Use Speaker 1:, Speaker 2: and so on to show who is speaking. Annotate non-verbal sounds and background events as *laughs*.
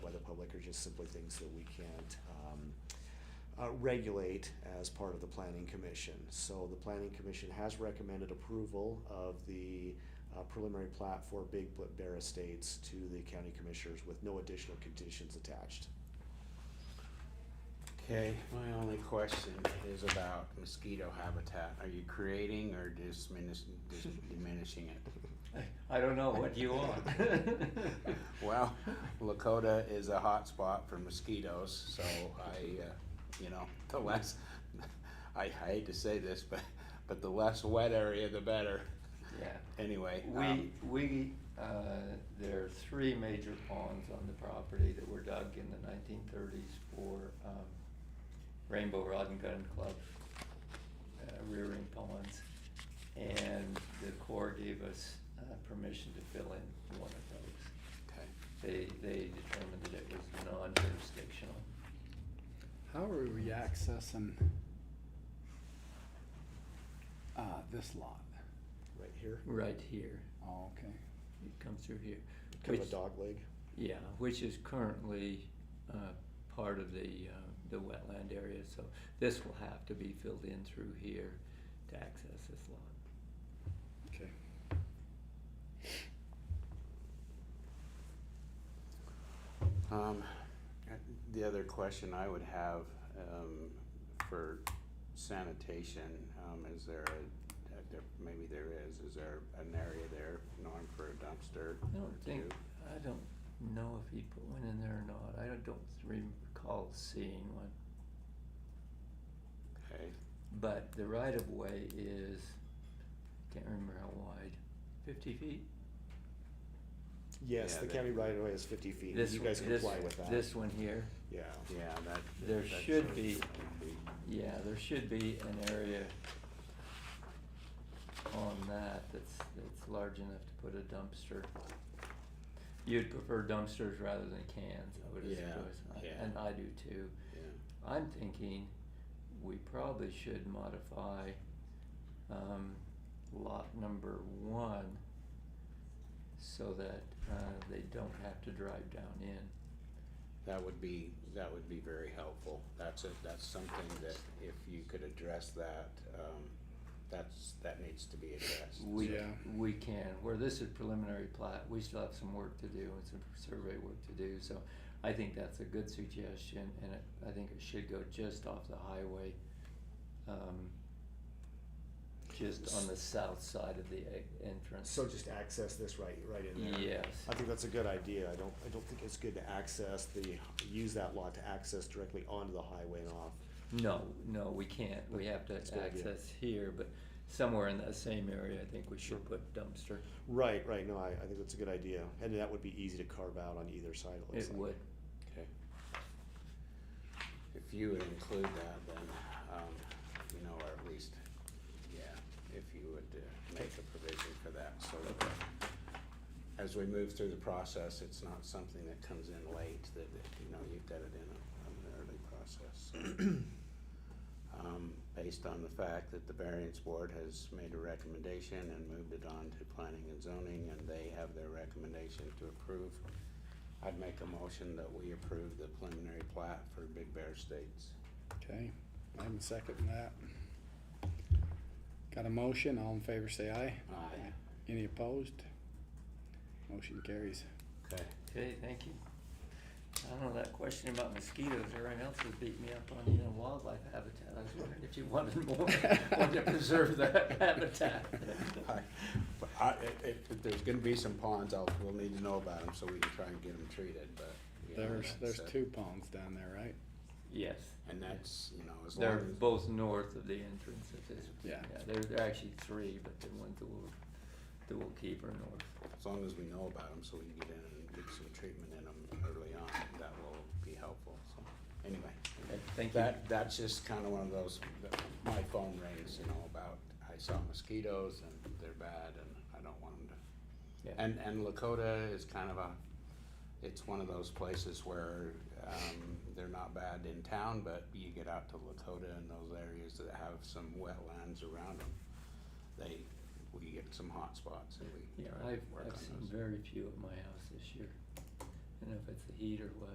Speaker 1: like are just simply things that we can't um, uh, regulate as part of the planning commission. So the planning commission has recommended approval of the uh, preliminary plat for Big Bl- Bear Estates to the county commissioners with no additional conditions attached.
Speaker 2: Okay, my only question is about mosquito habitat. Are you creating or diminishing, diminishing
Speaker 3: *laughs*
Speaker 2: it?
Speaker 4: I don't know, what do you want?
Speaker 2: *laughs* Well, Lakota is a hot spot for mosquitoes, so I, uh, you know, the less, I hate to say this, but, but the less wet area, the better.
Speaker 4: Yeah,
Speaker 2: Anyway, um,
Speaker 4: we, we, uh, there are three major ponds on the property that were dug in the nineteen thirties for, um, Rainbow Rod and Gun Club, uh, rearing ponds. And the Corps gave us, uh, permission to fill in one of those.
Speaker 2: okay.
Speaker 4: They, they determined that it was non-jurisdictional.
Speaker 3: How are we accessing uh, this lot?
Speaker 1: Right here,
Speaker 4: Right here,
Speaker 3: Oh, okay.
Speaker 4: it comes through here.
Speaker 1: kind of a
Speaker 4: Which-
Speaker 1: dog leg.
Speaker 4: Yeah, which is currently uh, part of the, uh, the wetland area, so this will have to be filled in through here to access this lot.
Speaker 3: Okay.
Speaker 2: Um, the other question I would have, um, for sanitation, um, is there a, a- there- maybe there is, is there an area there, Norm, for a dumpster?
Speaker 4: I
Speaker 2: or
Speaker 4: don't think,
Speaker 2: two?
Speaker 4: I don't know if he put one in there or not, I don't don't recall seeing one.
Speaker 2: Okay,
Speaker 4: But the right of way is, can't remember how wide, fifty feet?
Speaker 1: Yes,
Speaker 2: Yeah,
Speaker 1: the
Speaker 2: that-
Speaker 1: county right away is fifty feet.
Speaker 4: This
Speaker 1: You
Speaker 4: one-
Speaker 1: guys
Speaker 4: this-
Speaker 1: comply with that.
Speaker 4: This one here,
Speaker 1: Yeah.
Speaker 2: yeah, that.
Speaker 4: There
Speaker 2: that
Speaker 4: should
Speaker 2: sort of
Speaker 4: be-
Speaker 2: would be-
Speaker 4: yeah, there should be an area on that that's, that's large enough to put a dumpster. You'd prefer dumpsters rather than cans, I would
Speaker 2: Yeah,
Speaker 4: suppose,
Speaker 2: yeah.
Speaker 4: and I do too.
Speaker 2: Yeah,
Speaker 4: I'm thinking we probably should modify, um, lot number one so that, uh, they don't have to drive down in.
Speaker 2: that would be, that would be very helpful. That's a, that's something that if you could address that, um, that's, that needs to be addressed.
Speaker 4: We,
Speaker 3: Yeah.
Speaker 4: we can, where this is preliminary plat, we still have some work to do and some survey work to do, so I think that's a good suggestion, and it, I think it should go just off the highway. Um, just on the south side of the e- entrance.
Speaker 1: So just access this right, right in there.
Speaker 4: Yes.
Speaker 1: I think that's a good idea. I don't, I don't think it's good to access the, use that lot to access directly onto the highway and off.
Speaker 4: No, no, we can't, we have to
Speaker 1: That's a good idea.
Speaker 4: access here, but somewhere in that same area, I think we should put dumpster.
Speaker 1: Right, right, no, I, I think that's a good idea. And that would be easy to carve out on either side, it looks
Speaker 4: It
Speaker 1: like.
Speaker 4: would,
Speaker 2: Okay. If you would include that, then, um, you know, or at least, yeah, if you would uh, make a provision for that, so that as we move through the process, it's not something that comes in late, that, that, you know, you've got it in a- an early process. Um, based on the fact that the variance board has made a recommendation and moved it on to planning and zoning, and they have their recommendation to approve I'd make a motion that we approve the preliminary plat for Big Bear Estates.
Speaker 3: Okay. I'm seconding that. Got a motion? All in favor say aye.
Speaker 2: Aye.
Speaker 3: Any opposed? Motion carries.
Speaker 2: Okay.
Speaker 4: okay, thank you. I don't know, that question about mosquitoes, everyone else has beat me up on, you know, wildlife habitat, I was wondering if you wanted more, *laughs* wanted to preserve that habitat.
Speaker 2: Aye. But *laughs* I, if, if there's gonna be some ponds, I'll, we'll need to know about them so we can try and get them treated, but. you know,
Speaker 3: There's,
Speaker 2: that's
Speaker 3: there's
Speaker 2: a-
Speaker 3: two ponds down there, right?
Speaker 4: Yes.
Speaker 2: And that's, you know, as long
Speaker 4: They're
Speaker 2: as.
Speaker 4: both north of the entrance of this.
Speaker 3: Yeah.
Speaker 4: There, there are actually three, but the ones that we'll, that we'll keep are north.
Speaker 2: As long as we know about them, so we can get in and get some treatment in them early on, that will be helpful, so, anyway.
Speaker 4: Okay, Thank you.
Speaker 2: That, that's just kinda one of those, that my phone rings, you know, about, I saw mosquitoes and they're bad and I don't want them
Speaker 4: Yeah.
Speaker 2: to. And, and Lakota is kind of a, it's one of those places where, um, they're not bad in town, but you get out to Lakota and those areas that have some wetlands around them. They, we get some hot spots and we
Speaker 4: Yeah,
Speaker 2: try to
Speaker 4: I've,
Speaker 2: work on
Speaker 4: I've seen
Speaker 2: those.
Speaker 4: very few at my house this year. I don't know if it's the heat or what.